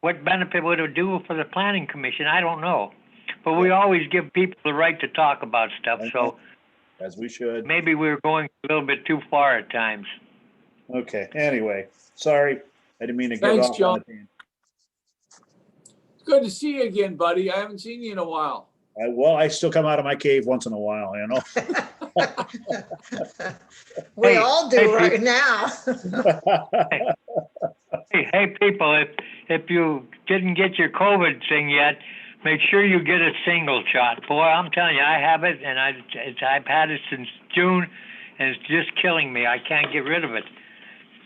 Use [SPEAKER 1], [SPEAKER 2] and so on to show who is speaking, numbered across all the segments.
[SPEAKER 1] what benefit would it do for the planning commission? I don't know. But we always give people the right to talk about stuff, so
[SPEAKER 2] as we should.
[SPEAKER 1] maybe we're going a little bit too far at times.
[SPEAKER 2] Okay, anyway, sorry, I didn't mean to get
[SPEAKER 3] Thanks,
[SPEAKER 2] off on
[SPEAKER 3] John.
[SPEAKER 2] a tangent.
[SPEAKER 3] Good to see you again, buddy. I haven't seen you in a while.
[SPEAKER 2] I, well, I still come out of my cave once in a while, you know?
[SPEAKER 4] We
[SPEAKER 1] Hey,
[SPEAKER 4] all
[SPEAKER 1] hey,
[SPEAKER 4] do right
[SPEAKER 1] Pete.
[SPEAKER 4] now.
[SPEAKER 1] Hey, hey, people, if, if you didn't get your COVID thing yet, make sure you get a single shot. Boy, I'm telling you, I have it and I, it's, I've had it since June and it's just killing me. I can't get rid of it.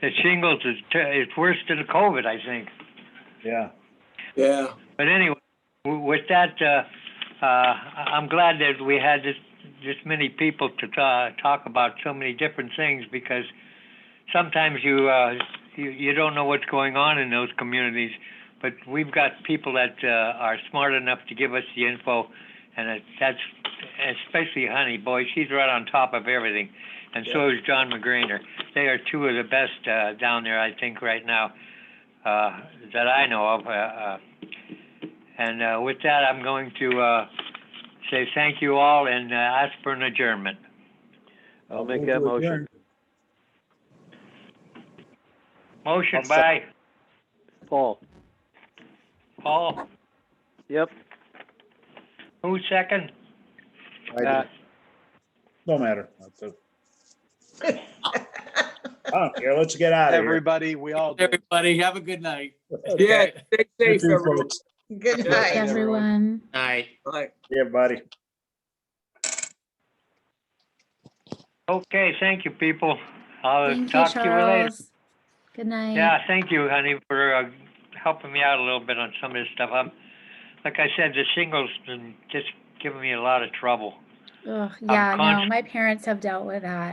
[SPEAKER 1] The shingles is, ter- it's worse than the COVID, I think.
[SPEAKER 2] Yeah,
[SPEAKER 3] Yeah.
[SPEAKER 1] But anyway, w- with that, uh, uh, I- I'm glad that we had this, this many people to ta- talk about so many different things because sometimes you, uh, you, you don't know what's going on in those communities. But we've got people that, uh, are smart enough to give us the info and it- that's, especially Honey, boy, she's right on top of everything. And so is John McGrainer. They are two of the best, uh, down there, I think, right now, uh, that I know of, uh, uh, and uh, with that, I'm going to uh, say thank you all and uh, ask for an adjournment.
[SPEAKER 5] I'll make that motion.
[SPEAKER 1] Motion
[SPEAKER 2] I'll
[SPEAKER 1] by
[SPEAKER 2] second.
[SPEAKER 5] Paul,
[SPEAKER 1] Paul,
[SPEAKER 5] yep.
[SPEAKER 1] who second?
[SPEAKER 2] I
[SPEAKER 5] Pat.
[SPEAKER 2] did. No matter. That's a- I don't care, let's get out of here.
[SPEAKER 6] Everybody, we all did.
[SPEAKER 7] Everybody, have a good night.
[SPEAKER 3] Yeah.
[SPEAKER 7] Okay.
[SPEAKER 3] Stay
[SPEAKER 2] You
[SPEAKER 3] safe,
[SPEAKER 2] too,
[SPEAKER 3] everyone.
[SPEAKER 2] folks.
[SPEAKER 3] Yeah,
[SPEAKER 4] Good night.
[SPEAKER 8] everyone.
[SPEAKER 7] Night.
[SPEAKER 3] Bye.
[SPEAKER 2] Yeah, buddy.
[SPEAKER 1] Okay, thank you, people. I'll
[SPEAKER 8] Thank you,
[SPEAKER 1] talk to you later.
[SPEAKER 8] Charles. Good night.
[SPEAKER 1] Yeah, thank you, honey, for uh, helping me out a little bit on some of this stuff. I'm, like I said, the singles been just giving me a lot of trouble.
[SPEAKER 8] Ugh, yeah, no,
[SPEAKER 1] conscious-
[SPEAKER 8] my parents have dealt with that.